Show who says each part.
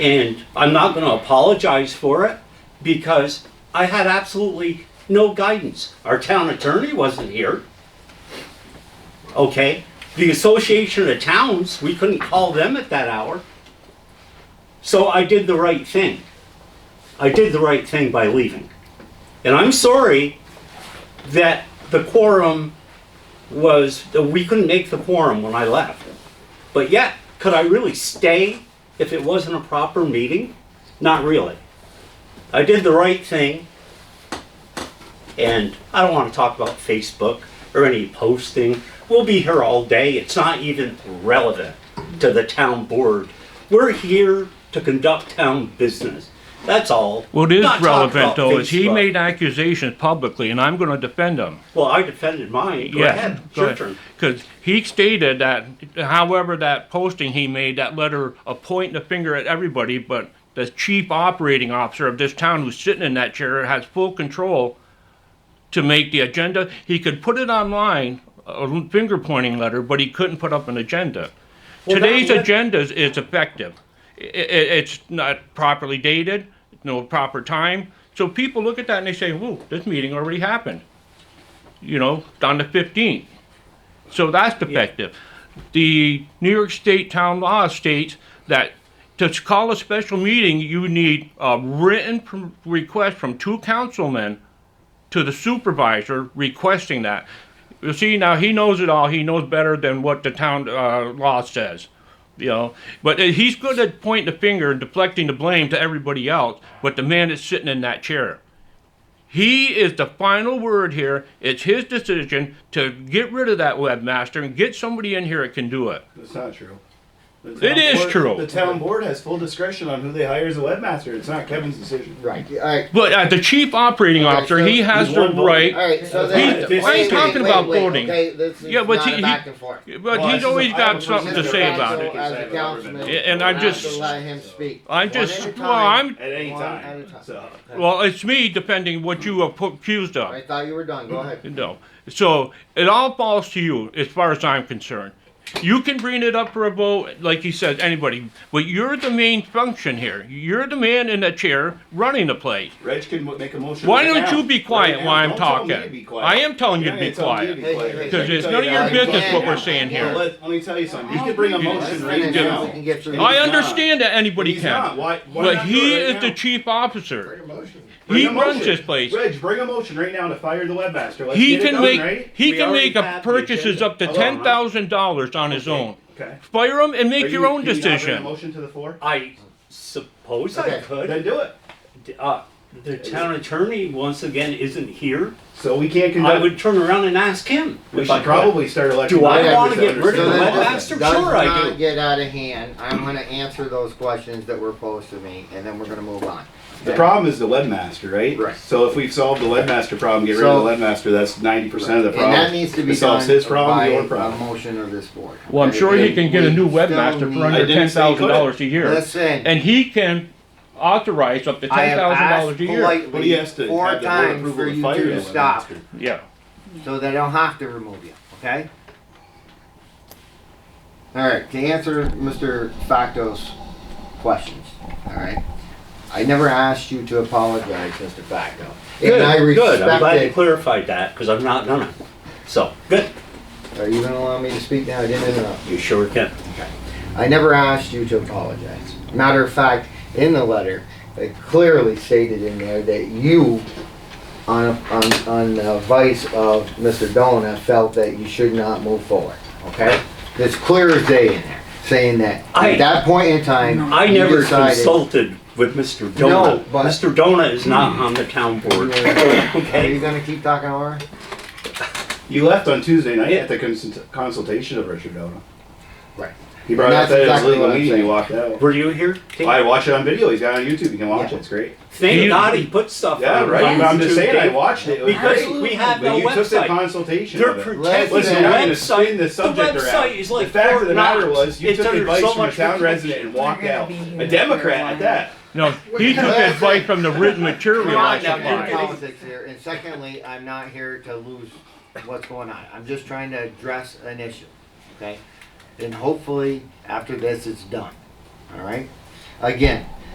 Speaker 1: And I'm not going to apologize for it because I had absolutely no guidance. Our town attorney wasn't here. Okay? The Association of Towns, we couldn't call them at that hour. So I did the right thing. I did the right thing by leaving. And I'm sorry that the quorum was, that we couldn't make the quorum when I left. But yet, could I really stay if it wasn't a proper meeting? Not really. I did the right thing. And I don't want to talk about Facebook or any posting. We'll be here all day. It's not even relevant to the town board. We're here to conduct town business. That's all.
Speaker 2: Well, it is
Speaker 1: Not talk
Speaker 2: relevant
Speaker 1: about
Speaker 2: though, is he
Speaker 1: Facebook.
Speaker 2: made accusations publicly, and I'm gonna defend him.
Speaker 1: Well, I defended mine. Go
Speaker 2: Yeah,
Speaker 1: ahead. It's
Speaker 2: go
Speaker 1: your
Speaker 2: ahead.
Speaker 1: turn.
Speaker 2: Cause he stated that, however, that posting he made, that letter of pointing the finger at everybody, but the chief operating officer of this town who's sitting in that chair has full control to make the agenda. He could put it online, a finger pointing letter, but he couldn't put up an agenda.
Speaker 1: Well, that
Speaker 2: Today's
Speaker 1: let-
Speaker 2: agenda is, is effective. I- I- it's not properly dated, no proper time. So people look at that and they say, "Whoa, this meeting already happened." You know, on the fifteenth. So that's defective. The New York State Town Law states that to call a special meeting, you need a written pr- request from two councilmen to the supervisor requesting that. You see, now he knows it all. He knows better than what the town uh, law says, you know. But uh, he's good at pointing the finger and deflecting the blame to everybody else. But the man that's sitting in that chair, he is the final word here. It's his decision to get rid of that webmaster and get somebody in here that can do it.
Speaker 3: That's not true. The
Speaker 2: It
Speaker 3: town
Speaker 2: is
Speaker 3: board-
Speaker 2: true.
Speaker 3: The town board has full discretion on who they hire as a webmaster. It's not Kevin's decision.
Speaker 4: Right. All right.
Speaker 2: But uh, the chief operating
Speaker 4: All right,
Speaker 2: officer,
Speaker 4: so
Speaker 2: he has
Speaker 3: he's
Speaker 2: the
Speaker 3: one vote.
Speaker 2: right.
Speaker 4: All right. So
Speaker 3: He-
Speaker 4: then,
Speaker 3: this
Speaker 4: wait
Speaker 3: is
Speaker 4: a minute,
Speaker 2: talking
Speaker 4: wait,
Speaker 2: about
Speaker 4: wait,
Speaker 2: voting.
Speaker 4: Okay, this is
Speaker 2: Yeah, but
Speaker 4: not
Speaker 2: he-
Speaker 4: a
Speaker 2: he-
Speaker 4: back and forth.
Speaker 2: But
Speaker 3: Well,
Speaker 2: he's
Speaker 3: I-
Speaker 2: always
Speaker 3: I
Speaker 2: got
Speaker 3: would
Speaker 2: something to
Speaker 3: presume
Speaker 2: say
Speaker 3: that
Speaker 2: about
Speaker 3: that's
Speaker 2: it.
Speaker 3: all.
Speaker 4: As a councilman,
Speaker 2: Yeah, and
Speaker 4: you
Speaker 2: I
Speaker 4: have
Speaker 2: just-
Speaker 4: to let him speak.
Speaker 2: I
Speaker 4: One
Speaker 2: just-
Speaker 4: at a time.
Speaker 2: well, I'm-
Speaker 3: At any
Speaker 4: One at a
Speaker 3: time.
Speaker 4: time.
Speaker 3: So,
Speaker 2: Well, it's me defending what you are accused of.
Speaker 4: I thought you were done. Go ahead.
Speaker 2: No. So it all falls to you as far as I'm concerned. You can bring it up for a vote, like you said, anybody, but you're the main function here. You're the man in the chair running the place.
Speaker 3: Reg can mo- make a motion.
Speaker 2: Why
Speaker 3: right
Speaker 2: don't
Speaker 3: now.
Speaker 2: you be quiet
Speaker 3: Right now.
Speaker 2: while I'm
Speaker 3: Don't tell me
Speaker 2: talking?
Speaker 3: to be quiet.
Speaker 2: I am telling you
Speaker 3: Yeah,
Speaker 2: to be
Speaker 3: yeah, tell me to
Speaker 2: quiet.
Speaker 3: be
Speaker 4: Hey, hey,
Speaker 3: quiet.
Speaker 4: hey.
Speaker 3: Let me
Speaker 2: 'Cause it's
Speaker 3: tell
Speaker 2: none of
Speaker 3: you
Speaker 2: your
Speaker 3: how you
Speaker 2: business
Speaker 3: vote.
Speaker 2: what we're saying
Speaker 3: Well,
Speaker 2: here.
Speaker 3: Let let me tell you something. You can bring a motion right
Speaker 4: finish this.
Speaker 3: now.
Speaker 4: We can get through
Speaker 3: And
Speaker 4: this.
Speaker 2: I
Speaker 3: he's
Speaker 2: understand
Speaker 3: not.
Speaker 2: that anybody
Speaker 3: He's not.
Speaker 2: can.
Speaker 3: Why? why
Speaker 2: But
Speaker 3: not do
Speaker 2: he
Speaker 3: it right
Speaker 2: is
Speaker 3: now?
Speaker 2: the chief officer.
Speaker 3: Bring
Speaker 2: He
Speaker 3: a
Speaker 2: runs
Speaker 3: motion.
Speaker 2: this place.
Speaker 3: Reg, bring a motion right now to fire the webmaster. Let's
Speaker 2: He
Speaker 3: get it
Speaker 2: can
Speaker 3: done,
Speaker 2: make,
Speaker 3: right?
Speaker 1: We
Speaker 2: he can
Speaker 1: already
Speaker 2: make a
Speaker 1: have the
Speaker 2: purchases
Speaker 1: agenda.
Speaker 2: up to
Speaker 3: Hold on,
Speaker 2: ten
Speaker 3: huh?
Speaker 2: thousand dollars on his own.
Speaker 3: Okay.
Speaker 2: Fire him and
Speaker 3: Are
Speaker 2: make
Speaker 3: you-
Speaker 2: your own
Speaker 3: can you not bring a
Speaker 2: decision.
Speaker 3: Motion to the floor.
Speaker 1: I suppose I
Speaker 4: Okay.
Speaker 1: could.
Speaker 3: Then do it.
Speaker 1: uh, the town attorney once again isn't here,
Speaker 3: So we can't
Speaker 1: I
Speaker 3: conduct.
Speaker 1: would turn around and ask him.
Speaker 3: We
Speaker 1: if I
Speaker 3: should
Speaker 1: could.
Speaker 3: probably start electing.
Speaker 1: Do I
Speaker 3: members
Speaker 1: wanna get rid
Speaker 4: So
Speaker 1: of the
Speaker 4: then,
Speaker 3: understand
Speaker 1: webmaster?
Speaker 4: does
Speaker 1: Sure I
Speaker 4: not
Speaker 1: do.
Speaker 4: get out of hand. I'm going to answer those questions that were posed to me, and then we're going to move on.
Speaker 3: this. The problem is the webmaster, right?
Speaker 4: Right.
Speaker 3: So if we've solved the webmaster problem, get rid of the
Speaker 4: So-
Speaker 3: webmaster, that's ninety percent of the problem.
Speaker 4: And that needs to be
Speaker 3: It solves
Speaker 4: done
Speaker 3: his problem,
Speaker 4: by
Speaker 3: your
Speaker 4: a
Speaker 3: problem.
Speaker 4: motion of this board.
Speaker 2: Well, I'm
Speaker 4: Okay?
Speaker 2: sure he
Speaker 4: And
Speaker 2: can get a
Speaker 4: we
Speaker 2: new
Speaker 4: still
Speaker 2: webmaster for
Speaker 4: need-
Speaker 2: under
Speaker 3: I
Speaker 2: ten
Speaker 3: didn't say he
Speaker 2: thousand
Speaker 3: could.
Speaker 2: dollars a year,
Speaker 4: Listen.
Speaker 2: and he can authorize up to
Speaker 4: I
Speaker 2: ten
Speaker 4: have
Speaker 2: thousand
Speaker 4: asked
Speaker 2: dollars a year.
Speaker 3: But he
Speaker 4: politely
Speaker 3: has to
Speaker 4: four
Speaker 3: have the board
Speaker 4: times
Speaker 3: approval
Speaker 4: for
Speaker 3: to
Speaker 4: you
Speaker 3: fire
Speaker 4: two
Speaker 3: the
Speaker 4: to stop,
Speaker 3: webmaster.
Speaker 2: Yeah.
Speaker 4: so they don't have to remove you, okay? All right, to answer Mr. Facto's questions, all right? I never asked you to apologize, Mr. Facto.
Speaker 1: Good,
Speaker 4: And I
Speaker 1: good. I'm glad you
Speaker 4: respected,
Speaker 1: clarified that because I'm not gonna. So good.
Speaker 4: are you gonna allow me to speak now? I didn't interrupt.
Speaker 1: You sure can.
Speaker 4: I never asked you to apologize. Matter of fact, in the letter, it clearly stated in there that you, on, on, on the advice of Mr. Dona, felt that you should not move forward, okay? It's clear as day in there, saying that
Speaker 1: I-
Speaker 4: at that point in time.
Speaker 1: I
Speaker 4: you
Speaker 1: never
Speaker 4: decided-
Speaker 1: consulted with Mr. Dona.
Speaker 4: No, but-
Speaker 1: Mr. Dona is not on the town board.
Speaker 4: Are you
Speaker 1: okay.
Speaker 4: gonna keep talking over?
Speaker 3: You left on Tuesday night
Speaker 1: Yeah.
Speaker 3: at the consult- consultation of Richard Dona.
Speaker 4: Right.
Speaker 3: He brought
Speaker 4: And
Speaker 3: up
Speaker 4: that's
Speaker 3: that as
Speaker 4: exactly
Speaker 3: legal
Speaker 4: what I'm
Speaker 3: meeting, he
Speaker 4: saying.
Speaker 3: walked out.
Speaker 1: Were you here? Tim?
Speaker 3: I watched it on video, he's got it on YouTube, you can watch
Speaker 4: Yeah.
Speaker 3: it, it's great.
Speaker 1: Thank
Speaker 2: You-
Speaker 1: God he put stuff.
Speaker 3: Yeah,
Speaker 1: on
Speaker 3: right, I'm- I'm just saying, I
Speaker 1: Tuesday.
Speaker 3: watched it. It was
Speaker 1: Because
Speaker 3: great.
Speaker 1: we have
Speaker 3: But
Speaker 1: no
Speaker 3: You took
Speaker 1: website.
Speaker 3: the consultation
Speaker 1: They're
Speaker 3: of it.
Speaker 1: protecting
Speaker 4: Listen,
Speaker 3: I'm
Speaker 1: the
Speaker 3: gonna
Speaker 1: website.
Speaker 3: spin the subject around.
Speaker 1: website is
Speaker 3: The
Speaker 1: like
Speaker 3: fact
Speaker 1: Fort
Speaker 3: of the matter
Speaker 1: Knox.
Speaker 3: was, you
Speaker 1: It's
Speaker 3: took
Speaker 1: under
Speaker 3: advice
Speaker 1: so
Speaker 3: from a
Speaker 1: much
Speaker 3: town
Speaker 1: protection.
Speaker 3: resident and walked
Speaker 5: They're gonna
Speaker 3: out.
Speaker 5: be here
Speaker 3: A Democrat at that.
Speaker 2: No, he took advice from the written material,
Speaker 4: We're
Speaker 2: I
Speaker 4: not getting into
Speaker 2: suppose.
Speaker 4: politics here, and secondly, I'm not here to lose what's going on. I'm just trying to address an issue, okay? And hopefully, after this, it's done, all right? Again,